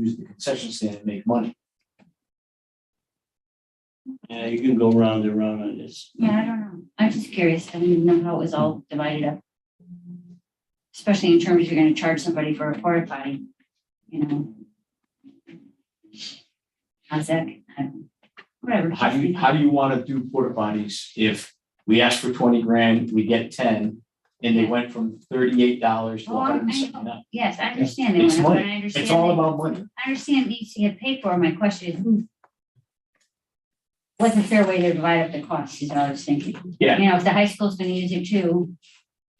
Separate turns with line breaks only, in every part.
use the concession stand and make money.
Yeah, you can go round and round on this.
Yeah, I don't know. I'm just curious. I didn't know how it was all divided up. Especially in terms of you're gonna charge somebody for a porta potty, you know. How's that? I don't- Whatever.
How do you, how do you wanna do porta potties if we ask for twenty grand, we get ten? And they went from thirty-eight dollars to
Oh, I-
hundred and seventy nine.
Yes, I understand that.
It's
and I
money.
understand
It's all
that-
about money.
I understand it needs to get paid for. My question is who? What's a fair way to divide up the costs is what I was thinking.
Yeah.
You know, if the high school's gonna use it too,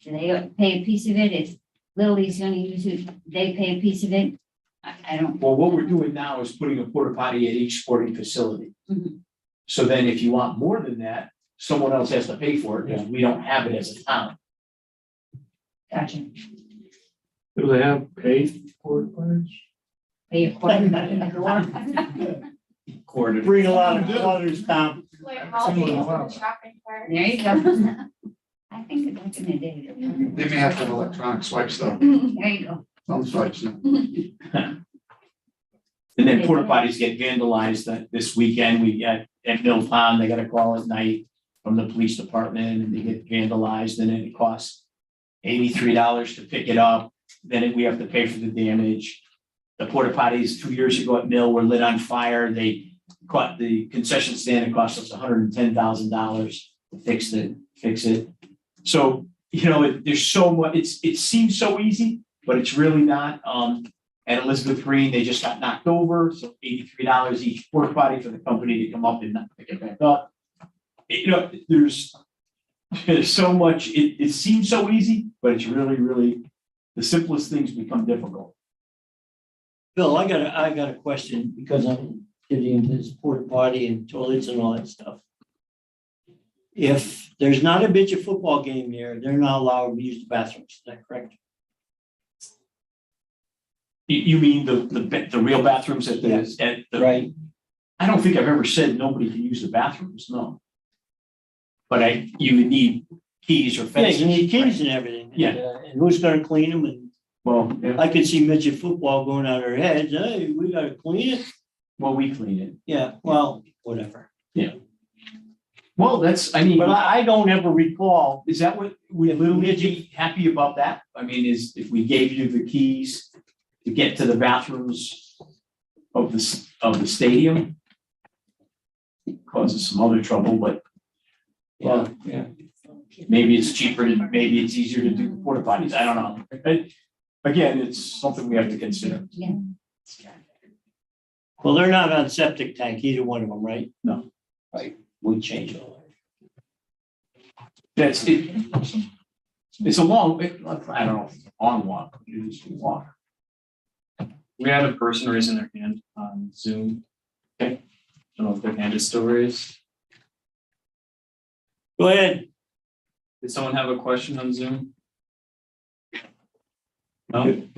do they pay a piece of it? If Little League's gonna use it, they pay a piece of it? I, I don't,
Well, what we're doing now is putting a porta potty at each sporting facility.
Mhm.
So then if you want more than that, someone else has to pay for it because we don't have it as a town.
gotcha.
Do they have paid porta potties?
Pay a quarter.
Quarter.
Bring a lot of others down.
Like all
Someone
days in
allowed.
the shopping cart.
There you go. I think it's like in the day.
They may have to have electronic swipes though,
There you go.
some swipes. you know.
And then porta potties get vandalized that this weekend, we got at Mill Pond, they got a call at night from the police department and they get vandalized and then it costs eighty-three dollars to pick it up, then it- we have to pay for the damage. The porta potties two years ago at Mill were lit on fire, they caught the concession stand, it cost us hundred and ten thousand dollars to fix it, fix it. So, you know, it- there's so much, it's, it seems so easy, but it's really not, um, at Elizabeth Green, they just got knocked over, so eighty-three dollars each porta potty for the company to come up and not pick it back up. You know, there's, there's so much, it, it seems so easy, but it's really, really, the simplest things become difficult.
Bill, I got, a I got a question because I'm getting into this porta potty and toilets and all that stuff. If there's not a bitch of football game here, they're not allowed to use the bathrooms, is that correct?
You, you mean the, the, ba- the real bathrooms at the,
Yes.
at the.
Right.
I don't think I've ever said nobody can use the bathrooms, no. But I, you would need keys or
Yeah,
fences.
you need keys and everything. and,
Yeah.
uh, And who's gonna clean them? And
Well, yeah,
I could see midget football going on their heads, hey, we gotta clean it.
well, we clean it.
Yeah, well, whatever.
Well, that's, I mean.
But I, I don't ever recall,
Is that what, would literally be happy about that? I mean, is if we gave you the keys to get to the bathrooms of the, s- of the stadium? Causes some other trouble, but
yeah,
Well, maybe it's cheaper, to maybe it's easier to do porta potties, I don't know. But Again, it's something we have to consider.
Yeah.
well, they're not on septic tank, either one of them, right?
No.
Right, we change all that.
That's it. It's a long, it- I don't know, on walk, it is a walk.
We had a person raising their hand on Zoom.
Okay.
I don't know if their hand is still raised.
Go ahead.
Did someone have a question on Zoom? No?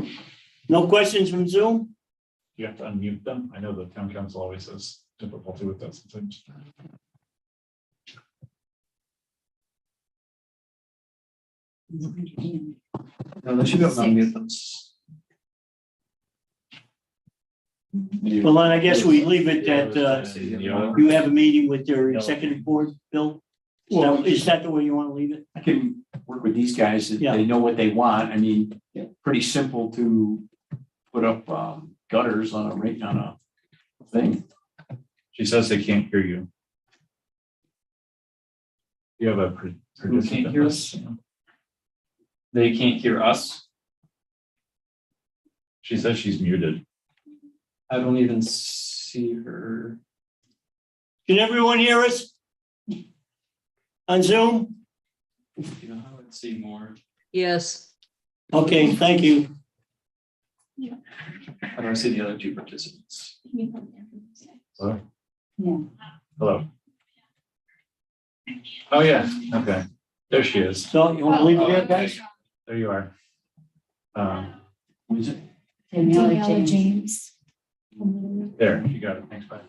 No questions from Zoom?
you have to unmute them? I know the town council always has difficulty with that sometimes.
No, they should have unmuted them.
Well, then I guess we leave it that uh,
uh.
you have a meeting with your executive board, Bill? Is
Well,
that- Is that the way you want to leave it?
I can work with these guys, if
Yeah.
they know what they want, I mean, pretty simple to put up um gutters on a rate, on a thing.
She says they can't hear you. You have a. pre-
Who can't hear us? They can't hear us.
She says she's muted.
I don't even see her.
Can everyone hear us? On Zoom?
You know, I would see more.
Yes,
Okay, thank you.
I don't see the other two participants.
Hello?
Yeah.
Hello? Oh, yeah, okay. There she is.
So you want to leave it there, guys?
There you are. Um,
What is it?
Daniela James.
James.
there, you got it. Thanks, bye.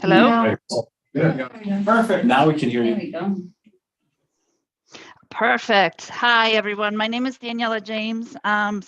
hello,
Right.
Yeah.
Perfect. Now we can hear
There
you.
we go.
perfect. Hi, everyone. My name is Daniela James. Um,